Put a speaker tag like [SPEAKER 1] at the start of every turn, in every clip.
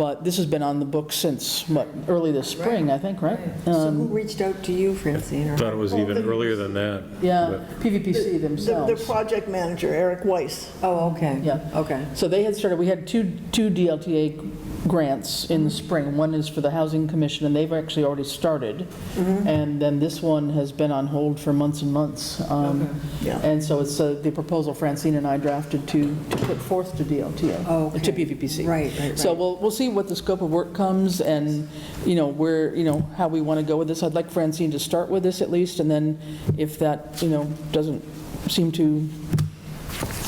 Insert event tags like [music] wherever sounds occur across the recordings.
[SPEAKER 1] But this has been on the books since, what, early this spring, I think, right?
[SPEAKER 2] So
[SPEAKER 1] Um,
[SPEAKER 2] who reached out to you, Francine? or-
[SPEAKER 3] Thought it was even earlier than that.
[SPEAKER 1] Yeah,
[SPEAKER 4] The-
[SPEAKER 1] PVPC
[SPEAKER 4] The
[SPEAKER 1] themselves.
[SPEAKER 4] project manager, Eric Weiss.
[SPEAKER 2] Oh, okay.
[SPEAKER 1] Yeah.
[SPEAKER 2] Okay.
[SPEAKER 1] So they had started, we had two, two DLTA grants in the spring. One is for the Housing Commission, and they've actually already started. And then this one has been on hold for months and months. Um,
[SPEAKER 4] yeah.
[SPEAKER 1] And so it's uh, the proposal Francine and I drafted to, to put forth to DLTA.
[SPEAKER 2] Oh, okay.
[SPEAKER 1] To PVPC.
[SPEAKER 2] Right, right,
[SPEAKER 1] So
[SPEAKER 2] right.
[SPEAKER 1] we'll, we'll see what the scope of work comes and, you know, where, you know, how we want to go with this. I'd like Francine to start with this at least, and then if that, you know, doesn't seem to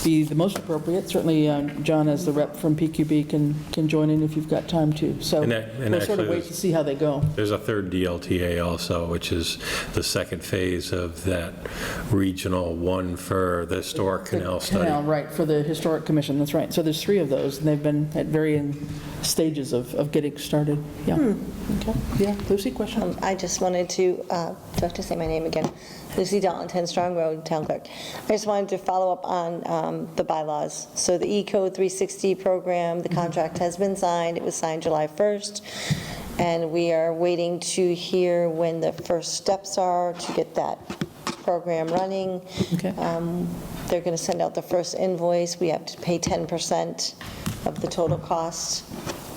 [SPEAKER 1] be the most appropriate, certainly um, John as the rep from PQB can, can join in if you've got time to. So
[SPEAKER 3] And that- and
[SPEAKER 1] we'll sort
[SPEAKER 3] actually
[SPEAKER 1] of wait
[SPEAKER 3] this-
[SPEAKER 1] to see how they go.
[SPEAKER 3] There's a third DLTA also, which is the second phase of that regional one for the historic canal
[SPEAKER 1] Canal,
[SPEAKER 3] study.
[SPEAKER 1] right, for the Historic Commission, that's right. So there's three of those, and they've been at varying stages of, of getting started, yeah. Okay, yeah, Lucy, question?
[SPEAKER 5] Um, I just wanted to, uh, do I have to say my name again? Lucy Dalton, 10 Strong Road, Town Clerk. I just wanted to follow up on um, the bylaws. So the E-Code 360 program, the contract has been signed, it was signed July 1st, and we are waiting to hear when the first steps are to get that program running.
[SPEAKER 1] Okay.
[SPEAKER 5] Um, They're going to send out the first invoice. We have to pay 10% of the total cost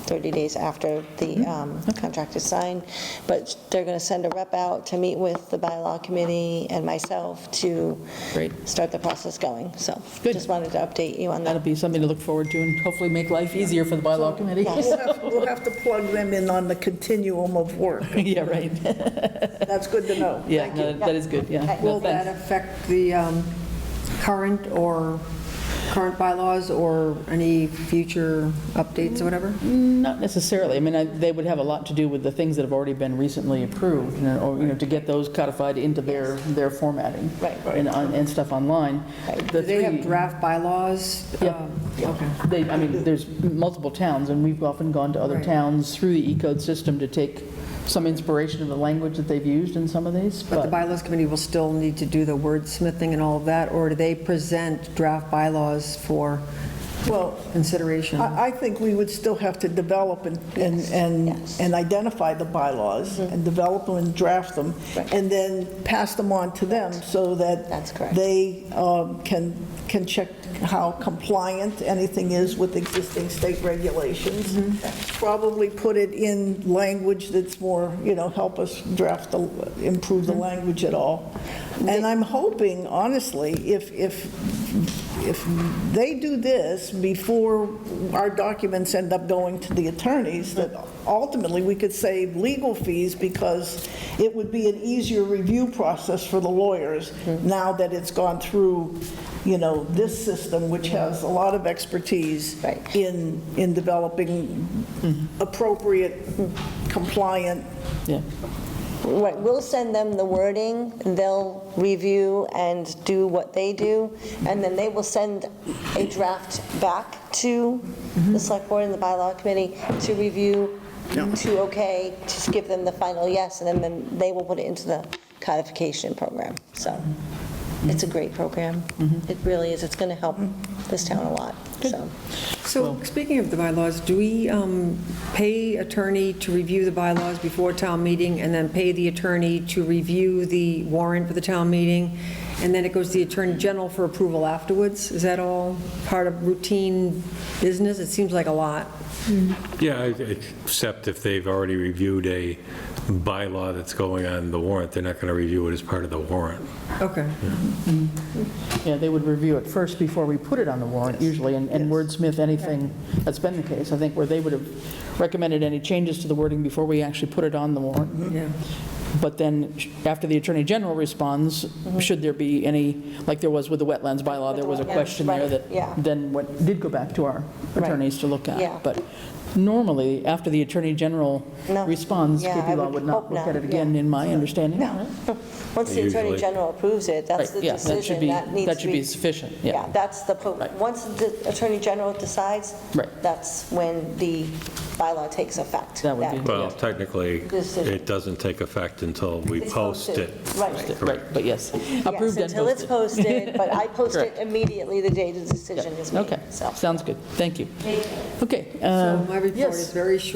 [SPEAKER 5] 30 days after the um, contract is signed. But they're going to send a rep out to meet with the bylaw committee and myself to
[SPEAKER 1] Great.
[SPEAKER 5] start the process going. So
[SPEAKER 1] Good.
[SPEAKER 5] just wanted to update you on
[SPEAKER 1] That'll
[SPEAKER 5] that.
[SPEAKER 1] be something to look forward to and hopefully make life easier for the bylaw committee.
[SPEAKER 5] Yes.
[SPEAKER 4] We'll have- we'll have to plug them in on the continuum
[SPEAKER 1] [laughs]
[SPEAKER 4] of work.
[SPEAKER 1] [laughs] Yeah,
[SPEAKER 2] [laughs]
[SPEAKER 1] right.
[SPEAKER 4] That's good to know.
[SPEAKER 1] Yeah, no, that is good, yeah.
[SPEAKER 5] Okay.
[SPEAKER 1] No,
[SPEAKER 2] Will that
[SPEAKER 1] thanks.
[SPEAKER 2] affect the um, current or, current bylaws or any future updates or whatever?
[SPEAKER 1] Not necessarily. I mean, I- they would have a lot to do with the things that have already been recently approved, you know, or, you know, to get those codified into their, their formatting.
[SPEAKER 5] Right.
[SPEAKER 1] And, on- and stuff online.
[SPEAKER 2] Do they have draft bylaws?
[SPEAKER 1] Yeah.
[SPEAKER 2] Um, Okay.
[SPEAKER 1] They, I mean, there's multiple towns, and we've often gone to other
[SPEAKER 2] Right.
[SPEAKER 1] towns through the E-code system to take some inspiration of the language that they've used in some of these,
[SPEAKER 2] But the
[SPEAKER 1] but
[SPEAKER 2] bylaws committee will still need to do the wordsmithing and all of that, or do they present draft bylaws for
[SPEAKER 4] Well,
[SPEAKER 2] consideration?
[SPEAKER 4] I, I think we would still have to develop and, and, and
[SPEAKER 5] yes. Mm-hmm.
[SPEAKER 4] and identify the bylaws and develop them and draft them
[SPEAKER 5] Right.
[SPEAKER 4] and then pass them on to them so that.
[SPEAKER 5] That's correct.
[SPEAKER 4] They um, can, can check how compliant anything is with existing state regulations.
[SPEAKER 5] Mm-hmm.
[SPEAKER 4] Probably put it in language that's more, you know, help us draft, the improve the
[SPEAKER 5] Mm-hmm.
[SPEAKER 4] language at all. And I'm hoping, honestly, if, if if they do this before our documents end up going to the attorneys, that ultimately we could save legal fees because it would be an easier review process for the lawyers now that it's gone through, you know, this system, which has a lot of expertise
[SPEAKER 5] Right.
[SPEAKER 4] in, in developing appropriate, compliant
[SPEAKER 1] yeah.
[SPEAKER 5] Right, we'll send them the wording, they'll review and do what they do, and then they will send a draft back to the select board and the bylaw committee to review, to okay, to give them the final yes, and then- then they will put it into the codification program. So it's a great program. It really is. It's going to help this town a lot, so.
[SPEAKER 2] So speaking of the bylaws, do we um, pay attorney to review the bylaws before town meeting and then pay the attorney to review the warrant for the town meeting? And then it goes to the Attorney General for approval afterwards? Is that all part of routine business? It seems like a lot.
[SPEAKER 3] Yeah, I- except if they've already reviewed a bylaw that's going on the warrant, they're not going to review it as part of the warrant.
[SPEAKER 2] Okay.
[SPEAKER 1] Yeah, they would review it first before we put it on the warrant usually, and and wordsmith anything, that's been the case, I think, where they would have recommended any changes to the wording before we actually put it on the
[SPEAKER 5] Mm-hmm.
[SPEAKER 1] warrant.
[SPEAKER 2] Yeah.
[SPEAKER 1] But then, sh- after the Attorney General responds,
[SPEAKER 5] Mm-hmm.
[SPEAKER 1] should there be any, like there was with the wetlands bylaw, there was a
[SPEAKER 5] Yeah,
[SPEAKER 1] question there
[SPEAKER 5] right,
[SPEAKER 1] that
[SPEAKER 5] yeah.
[SPEAKER 1] then went, did go back to our
[SPEAKER 5] Right.
[SPEAKER 1] attorneys to look at.
[SPEAKER 5] Yeah.
[SPEAKER 1] But normally, after the Attorney General
[SPEAKER 5] No.
[SPEAKER 1] responds,
[SPEAKER 5] Yeah, I
[SPEAKER 1] KP Law
[SPEAKER 5] would
[SPEAKER 1] would not
[SPEAKER 5] hope
[SPEAKER 1] look
[SPEAKER 5] not,
[SPEAKER 1] at it again,
[SPEAKER 5] yeah.
[SPEAKER 1] in my understanding.
[SPEAKER 5] No. Once the Attorney
[SPEAKER 3] Usually.
[SPEAKER 5] General approves it, that's the
[SPEAKER 1] Right, yeah, that should
[SPEAKER 5] decision
[SPEAKER 1] be-
[SPEAKER 5] that needs to be...
[SPEAKER 1] that should be sufficient, yeah.
[SPEAKER 5] Yeah, that's the, po-
[SPEAKER 1] Right.
[SPEAKER 5] once the Attorney General decides,
[SPEAKER 1] Right.
[SPEAKER 5] that's when the bylaw takes effect.
[SPEAKER 1] That would be-
[SPEAKER 3] Well, technically,
[SPEAKER 5] Decision.
[SPEAKER 3] it doesn't take effect until we
[SPEAKER 5] It's
[SPEAKER 3] post
[SPEAKER 5] posted.
[SPEAKER 3] it.
[SPEAKER 5] Right.
[SPEAKER 1] Right, but yes,
[SPEAKER 5] Yes,
[SPEAKER 1] approved and
[SPEAKER 5] until it's
[SPEAKER 1] posted.
[SPEAKER 5] posted, but
[SPEAKER 1] [laughs]
[SPEAKER 5] I post it
[SPEAKER 1] Correct.
[SPEAKER 5] immediately the day the decision is made,
[SPEAKER 1] Okay,
[SPEAKER 5] so.
[SPEAKER 1] sounds good, thank you. Okay.
[SPEAKER 2] So
[SPEAKER 1] uh,
[SPEAKER 2] my report
[SPEAKER 1] yes.
[SPEAKER 2] is very short.